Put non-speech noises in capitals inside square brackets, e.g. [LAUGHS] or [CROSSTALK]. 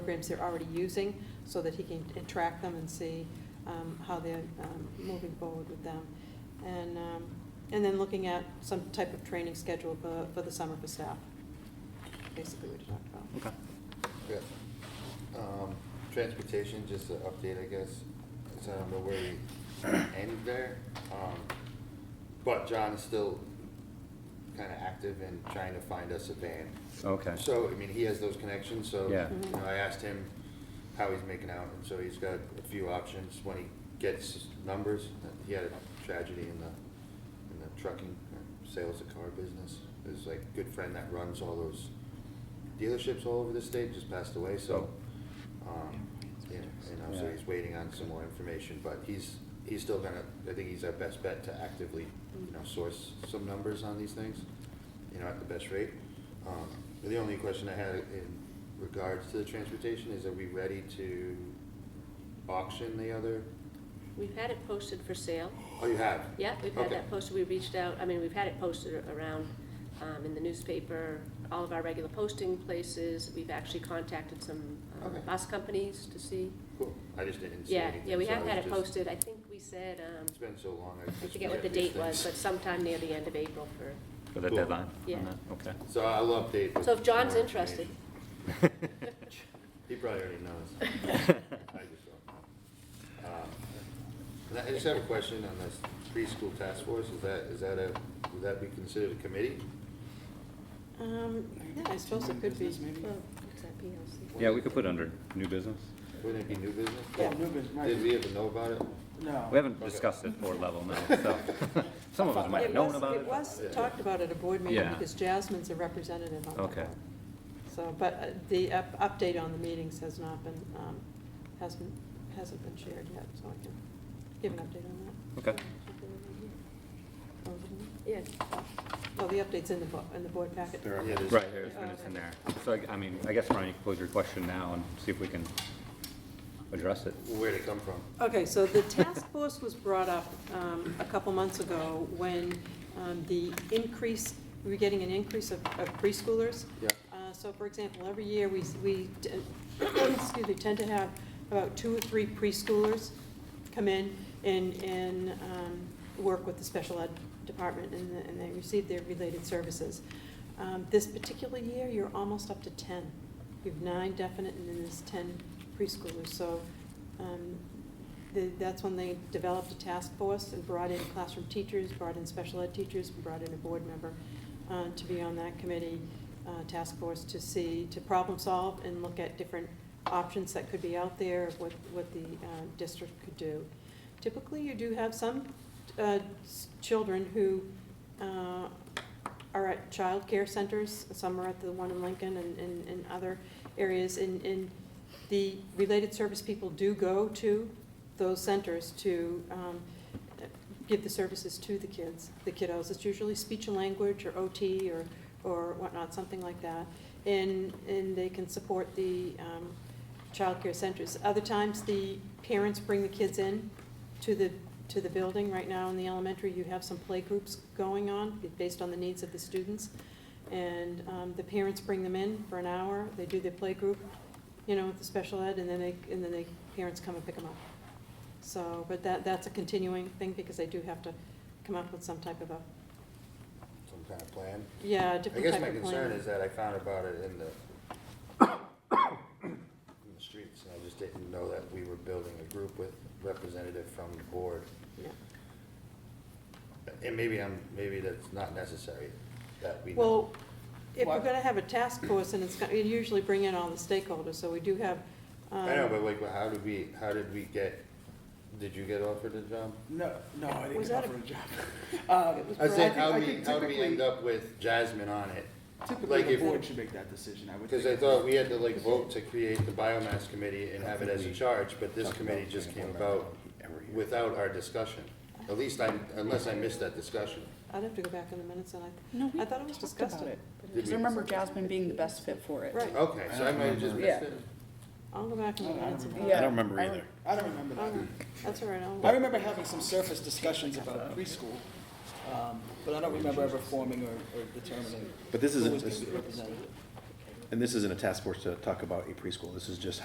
programs they're already using, so that he can track them and see um, how they're um, moving forward with them. And, um, and then looking at some type of training schedule for, for the summer for staff, basically what you talked about. Okay. Yeah. Um, Transportation, just an update, I guess, so I don't know where we end there. Um, But John is still kind of active in trying to find us a van. Okay. So, I mean, he has those connections, so, Yeah. you know, I asked him how he's making out, and so he's got a few options when he gets numbers. He had a tragedy in the, in the trucking, or sales of car business. His like good friend that runs all those dealerships all over the state just passed away, so, um, yeah, you know, so Oh. Yeah. he's waiting on some more information, but he's, he's still gonna, I think he's our best bet to actively, you know, source some numbers on these things, you know, at the best rate. Um, The only question I had in regards to the transportation is, are we ready to auction the other? We've had it posted for sale. Oh, you have? Yeah, we've had Okay. that posted. We reached out, I mean, we've had it posted around um, in the newspaper, all of our regular posting places. We've actually contacted some um, Okay. bus companies to see. Cool, I just didn't see Yeah, anything. yeah, we so I have had was it just- posted. I think we said, um, It's been so long, I I just forget what the forget date these was, but things. sometime near the end of April for, For the Cool. deadline? on Yeah. that? Okay. So I'll update. with so if John's more interested. information. [LAUGHS] He probably already knows. I just don't know. Um, and I just have a question on this preschool task force, is that, is that a, would that be considered a committee? Um, yeah, I suppose it could be. What's that, PLC? Yeah, we could put under new business. Wouldn't it be new business? Yeah. New business, right. Did we ever know about it? No. We haven't discussed it board level now, [LAUGHS] so some of us might have It known was- about it. It was Yeah. talked about at a board meeting, Yeah. because Jasmine's a representative on that Okay. board. So, but uh, the up- update on the meetings has not been, um, hasn't, hasn't been shared yet, so I can give an update on that. Okay. Yeah, Well, the update's in the, bo- in the board packet. Yeah, there's- Right, there's minutes in there. So, I- I mean, I guess, Ron, you can pose your question now and see if we can address it. Where'd it come from? Okay, so the task force was brought up um, a couple months ago when um, the increase, we were getting an increase of of preschoolers. Yeah. Uh, So for example, every year, we, we, t- [COUGHS] excuse me, tend to have about two or three preschoolers come in and, and um, work with the special ed department, and the- and they receive their related services. Um, This particular year, you're almost up to 10. You have nine definite, and then there's 10 preschoolers. So um, the- that's when they developed a task force and brought in classroom teachers, brought in special ed teachers, and brought in a board member uh, to be on that committee, uh, task force, to see, to problem solve and look at different options that could be out there, of what, what the uh, district could do. Typically, you do have some uh, s- children who uh, are at child care centers, some are at the one in Lincoln and, and, and other areas. And, and the related service people do go to those centers to um, give the services to the kids, the kiddos. It's usually speech and language or OT or, or whatnot, something like that. And, and they can support the um, childcare centers. Other times, the parents bring the kids in to the, to the building. Right now in the elementary, you have some playgroups going on based on the needs of the students. And um, the parents bring them in for an hour, they do their playgroup, you know, with the special ed, and then they, and then the parents come and pick them up. So, but that, that's a continuing thing because they do have to come up with some type of a, Some kind of plan? yeah, a I different guess type my of plan. concern is that I found about it in the, in the streets, and I just didn't know that we were building a group with representative from the board. Yeah. And maybe I'm, maybe that's not necessary, that we know. Well, if we're What? gonna have a task force, and it's, gonna- you usually bring in all the stakeholders, so we do have. I know, um, but like, well, how did we, how did we get, did you get offered a job? No, no, I didn't Was get that offered [LAUGHS] a job. Um, It was I I said, think- how I do we, think how do we typically- end up with Jasmine on it? Typically, Like the if, board should make that decision, I would think. because I thought we had to like vote to create the biomass committee and have it as a charge, but this committee just came about without our discussion. At least I, unless I missed that discussion. I'd have to go back in the minutes, and No, I, we I thought it was talked discussed. about it. Did Because we- I remember Jasmine being the best fit for it. Right, Okay, so I might have just missed Yeah. it. I'll go back in the I don't minutes. and- Yeah. I don't remember I don't- either. I don't remember Oh, Mm. that. That's all right, I'll. I remember having some surface discussions about preschool, um, but I don't remember ever forming or or determining But this who was is, going to this- be represented. And this isn't a task force to talk about a preschool, this is just